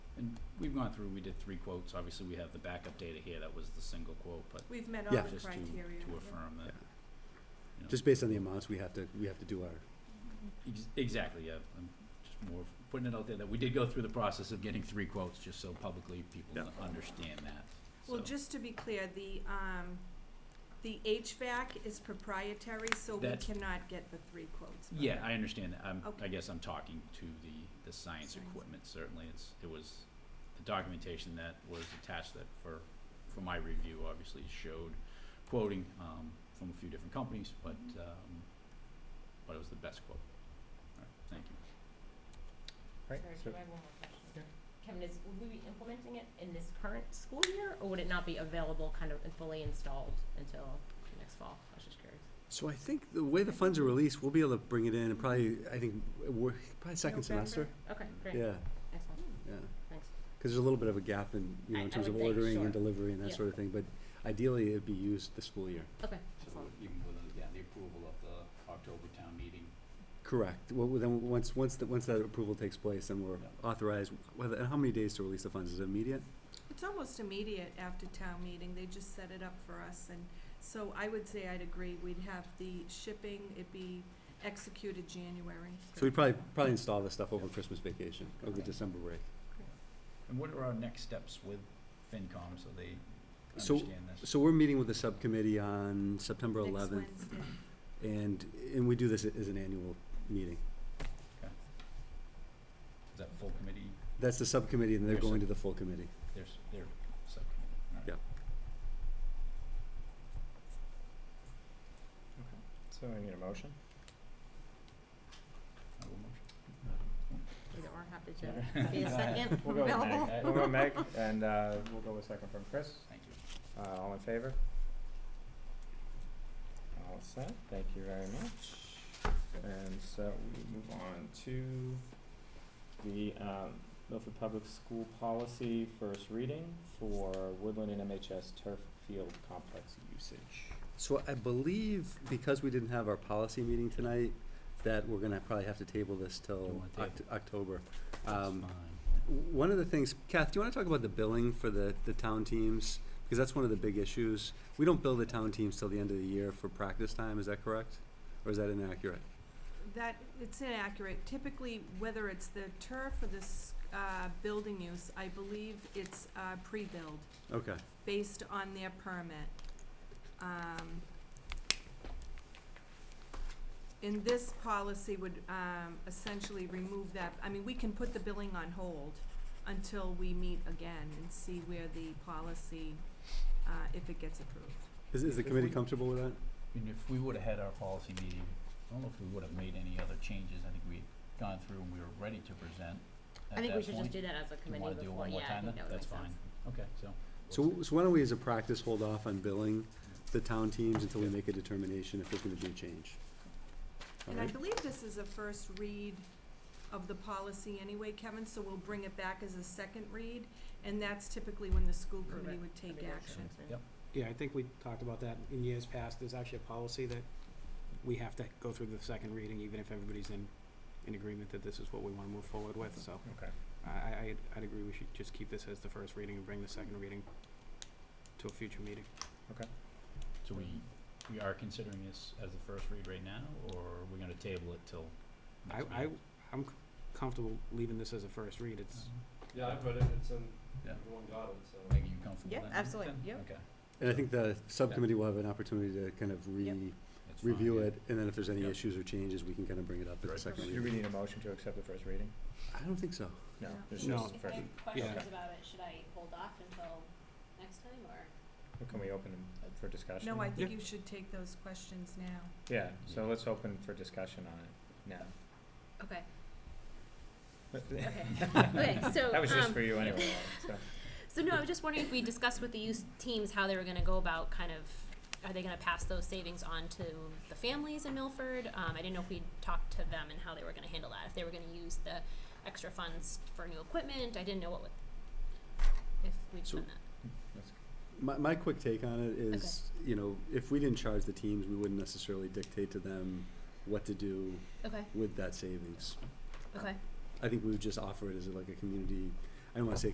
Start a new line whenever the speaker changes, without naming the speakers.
we've gone through, we did three quotes, obviously we have the backup data here, that was the single quote, but
We've met all
Yeah.
the
Just to-
criteria.
to affirm that. you know,
Just based on the amounts, we have to, we have to do our,
ex- Exactly, yeah, I'm just more putting it out there that we did go through the process of getting three quotes, just so publicly people
Yeah.
understand that, so.
Well, just to be clear, the, um, the HVAC is proprietary, so we
That's-
cannot get the three quotes. from
Yeah,
them.
I understand that. I'm, I
Okay.
guess I'm talking to the, the science
Science.
equipment, certainly. It's, it was, the documentation that was attached that for, for my review obviously showed quoting, um, from a few different companies, but, um, but it was the best quote. All right, thank you.
Right,
Sorry,
so-
Jim, I have one more question. Kevin, is, will we be implementing it in this current school year, or would it not be available kind of and fully installed until next fall? I was just curious.
so I think the way the funds are released, we'll be able to bring it in, and probably, I think, we're, probably second
November?
semester.
Okay, great.
Yeah,
Excellent,
yeah.
thanks.
Because there's a little bit of a gap in, you know,
I-
in
I
terms
would
of
think,
ordering
sure.
and delivery and that
Yeah.
sort of thing, but ideally, it'd be used this school year.
Okay, excellent.
you can go to, yeah, the approval of the October town meeting.
Correct. Well, then, once, once, the- once that approval takes place, then we're
Yeah.
authorized, whether, and how many days to release the funds? Is it immediate?
It's almost immediate after town meeting, they just set it up for us, and so I would say I'd agree, we'd have the shipping, it'd be executed January.
So we'd probably, probably install this stuff over
Yeah.
Christmas vacation, over the
Okay.
December break.
And what are our next steps with FinCom so they
So-
understand this?
So we're meeting with the subcommittee on September eleventh,
Next Wednesday.
and, and we do this as an annual meeting.
Is that full committee,
That's the subcommittee, and they're
There's a-
going to the full committee.
there's, their subcommittee? All right.
Yeah.
So I need a motion?
I will motion.
Either or, happy to be a second
We'll go with
available.
Meg, we'll go with Meg, and, uh, we'll go with second from Chris,
Thank you.
uh, all in favor? All set, thank you very much, and so we move on to the, um, Milford Public School Policy First Reading for Woodland and MHS Turf Field Complex Usage.
So I believe, because we didn't have our policy meeting tonight, that we're gonna probably have to table this
Don't
till
wanna table.
Oct- October.
That's
Um,
fine.
w- One of the things, Kath, do you wanna talk about the billing for the, the town teams? Because that's one of the big issues. We don't bill the town teams till the end of the year for practice time, is that correct? Or is that inaccurate?
That, it's inaccurate. Typically, whether it's the turf or this, uh, building use, I believe it's, uh, pre-build
Okay,
based on their permit. Um, in this policy would, um, essentially remove that. I mean, we can put the billing on hold until we meet again and see where the policy, uh, if it gets approved.
is, is the
If
committee
we-
comfortable with that?
And if we would've had our policy meeting, I don't know if we would've made any other changes, I think we'd gone through and we were ready to present at that point.
I think we should just do that as a
you wanna
committee
do it
before,
one more
yeah, I
time then?
think that would make
That's
sense.
fine, okay, so.
So, so why don't we, as a practice, hold off on billing the town teams until we make a determination if there's gonna be a change? All
And I
right,
believe this is a first read of the policy anyway, Kevin, so we'll bring it back as a second read, and that's typically when the school committee would
That'd
take
be great.
action.
Yep.
Yeah, I think we talked about that in years past. There's actually a policy that we have to go through the second reading, even if everybody's in, in agreement that this is what we want to move forward with, so.
Okay.
I, I, I'd- I'd agree we should just keep this as the first reading and bring the second reading to a future meeting.
So we, we are considering this as the first read right now, or are we gonna table it till
I,
next
I,
meeting? Uh-huh.
I'm c- comfortable leaving this as a first read. It's,
Yeah, I've read it, it's in,
Yeah.
everyone got it, so.
Meg, are you comfortable
Yeah,
then?
absolutely,
Then?
yep.
Okay,
and I think the subcommittee will have an opportunity to kind of
Yep.
re,
that's fine.
review it, and then if there's any
Yep.
issues or changes, we can kind of bring it up at the
Right.
second
Do we
reading.
need a motion to accept the first reading?
I don't think so.
No,
No.
there's
No.
just the
If I
first,
have
questions
questions about it, should I hold off until next time, or?
can we open it for discussion?
No, I think
Yeah.
you should take those questions now.
Yeah, so let's open for discussion on it
Okay,
now.
okay. Okay, so,
That was just
um,
for you anyway, so,
So no, I was just wondering if we discussed with the youth teams how they were gonna go about kind of, are they gonna pass those savings on to the families in Milford? Um, I didn't know if we talked to them and how they were gonna handle that, if they were gonna use the extra funds for new equipment, I didn't know what would, if we'd
So-
done that.
My, my quick take on it is, you know, if we didn't charge the teams, we wouldn't necessarily dictate to them what to do
Okay,
with that savings.
okay.
I think we would just offer it as like a community, I don't wanna say